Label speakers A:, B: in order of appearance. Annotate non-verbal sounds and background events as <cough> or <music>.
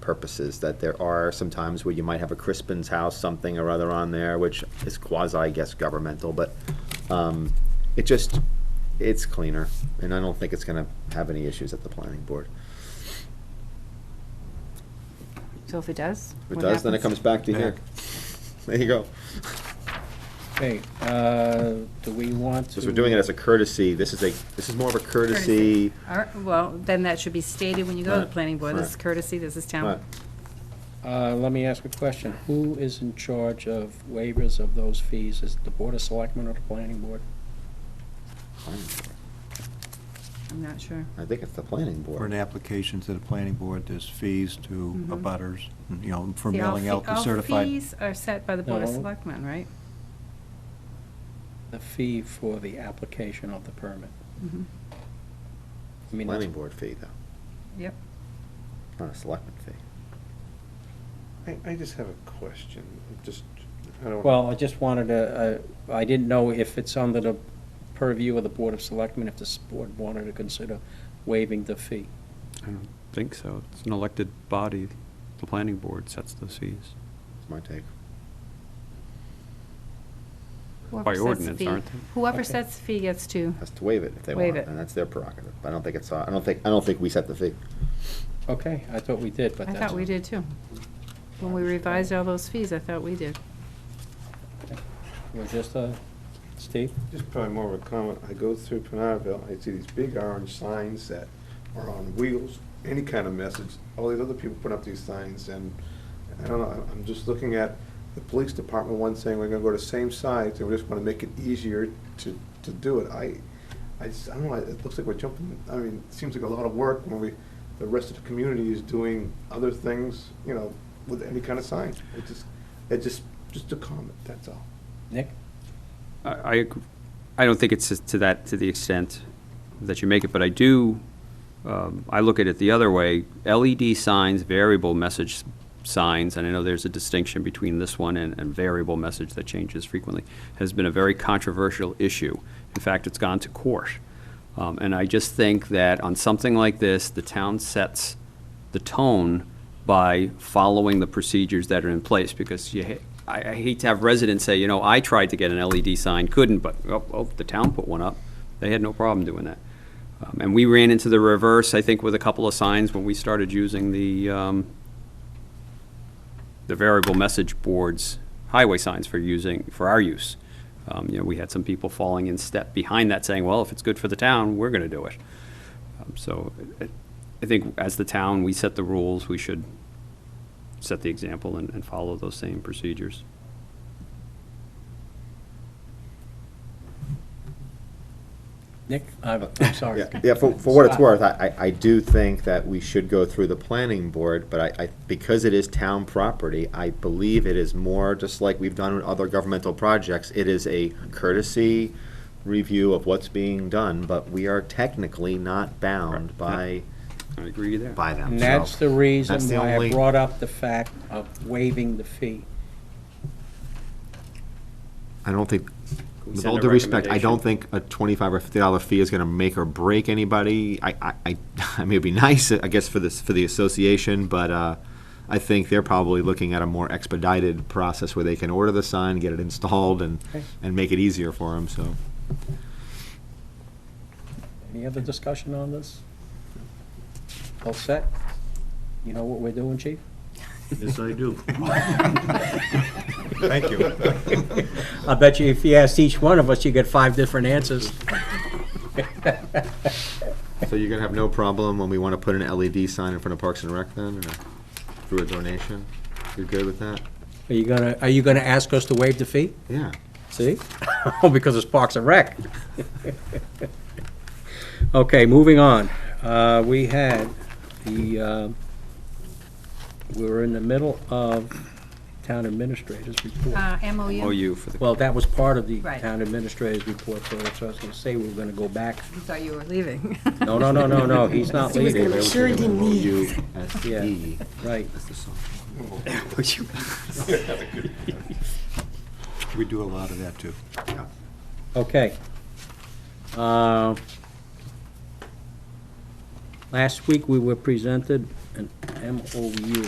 A: purposes, that there are some times where you might have a Crispin's House, something or other on there, which is quasi, I guess, governmental, but um, it just, it's cleaner, and I don't think it's gonna have any issues at the planning board.
B: So if it does?
A: If it
B: what
A: does, then it comes
B: happens?
A: back to here. <laughs> There you go.
C: Okay, uh, do we want to?
A: Since we're doing it as a courtesy, this is a, this is more of a courtesy.
B: All right, well, then that should be stated when you go to the
A: Right,
B: planning board. This is
A: right.
B: courtesy, this is
A: Right.
B: town.
C: Uh, Let me ask a question. Who is in charge of waivers of those fees? Is it the Board of Selectmen or the Planning Board?
A: Planning board.
B: I'm not sure.
A: I think it's the planning
D: For an
A: board.
D: application to the planning board, there's fees to
B: Mhm.
D: abutters, you know, for
B: See, all
D: mailing
B: fee-
D: out the certified.
B: All fees are set by the Board of
C: No.
B: Selectmen, right?
C: The fee for the application of the permit?
B: Mhm.
C: I mean, that's-
A: Planning board fee, though,
B: Yep.
A: not a selectman fee.
E: I, I just have a question, just, I don't.
C: Well, I just wanted to, uh, I didn't know if it's under the purview of the Board of Selectmen, if this board wanted to consider waiving the fee.
F: I don't think so. It's an elected body. The planning board sets those fees
A: It's my take.
B: Whoever
F: by
B: sets the
F: ordinance,
B: fee-
F: aren't they?
B: Whoever
C: Okay.
B: sets the fee gets to,
A: Has to waive it if they
B: Waive
A: want,
B: it.
A: and that's their prerogative. I don't think it's, I don't think, I don't think we set the fee.
C: Okay, I thought we did, but
B: I
C: that's.
B: thought we did too. When we revised all those fees, I thought we did.
C: We're just, uh, Steve?
E: Just probably more of a comment, I go through Penardville, I see these big orange signs that are on wheels, any kind of message, all these other people put up these signs, and I don't know, I- I'm just looking at the police department, one saying we're gonna go to same size, and we just wanna make it easier to, to do it, I, I just, I don't know, it looks like we're jumping, I mean, it seems like a lot of work when we, the rest of the community is doing other things, you know, with any kind of sign, it just, it just, just a comment, that's all.
C: Nick?
F: I, I ag- I don't think it's as- to that, to the extent that you make it, but I do, um, I look at it the other way. LED signs, variable message s- signs, and I know there's a distinction between this one and, and variable message that changes frequently, has been a very controversial issue. In fact, it's gone to court. Um, and I just think that on something like this, the town sets the tone by following the procedures that are in place, because you, ha- I, I hate to have residents say, you know, I tried to get an LED sign, couldn't, but, oh, oh, the town put one up. They had no problem doing that. Um, And we ran into the reverse, I think, with a couple of signs when we started using the, um, the variable message boards, highway signs for using, for our use. Um, You know, we had some people falling in step behind that, saying, well, if it's good for the town, we're gonna do it. Um, So I- I think as the town, we set the rules, we should set the example and, and follow those same procedures.
C: Nick, I'm, I'm sorry.
A: Yeah, yeah, for, for what it's worth, I, I I do think that we should go through the planning board, but I, I, because it is town property, I believe it is more, just like we've done with other governmental projects, it is a courtesy review of what's being done, but we are technically not bound by,
F: I agree there.
A: by them,
C: And
A: so
C: that's the reason
A: that's the
C: why I
A: only-
C: brought up the fact of waiving the fee.
A: I don't think,
F: Can we
A: with
F: send
A: all
F: a
A: due respect, I
F: recommendation?
A: don't think a twenty-five or fifty dollar fee is gonna make or break anybody. I, I, I, <laughs> I mean, it'd be nice, I guess, for this, for the association, but, uh, I think they're probably looking at a more expedited process where they can order the sign, get it installed and,
C: Okay.
A: and make it easier for them, so.
C: Any other discussion on this? All set? You know what we're doing, chief?
G: Yes, I do.
D: <laughs> Thank you.
C: <laughs> I bet you if you asked each one of us, you get five different answers.
A: So you're gonna have no problem when we wanna put an LED sign in front of Parks and Rec then, or through a donation? You're good with that?
C: Are you gonna, are you gonna ask us to waive the fee?
A: Yeah.
C: See? <laughs> Oh, because it's Parks and Rec. <laughs> Okay, moving on. Uh, we had the, uh, we were in the middle of town administrator's report.
B: Uh,
A: Oh,
B: MOU?
F: MOU Oh, for the.
C: Well, that was part of the
B: Right.
C: town administrator's report, so that's what I was gonna say, we were gonna go back.
B: You thought you were leaving.
C: No, no, no, no, no,
A: <laughs>
C: he's not leaving,
A: Sure didn't need. E.
C: right.
D: We do a lot of that, too.
C: Okay. Uh, Last week, we were presented an MOU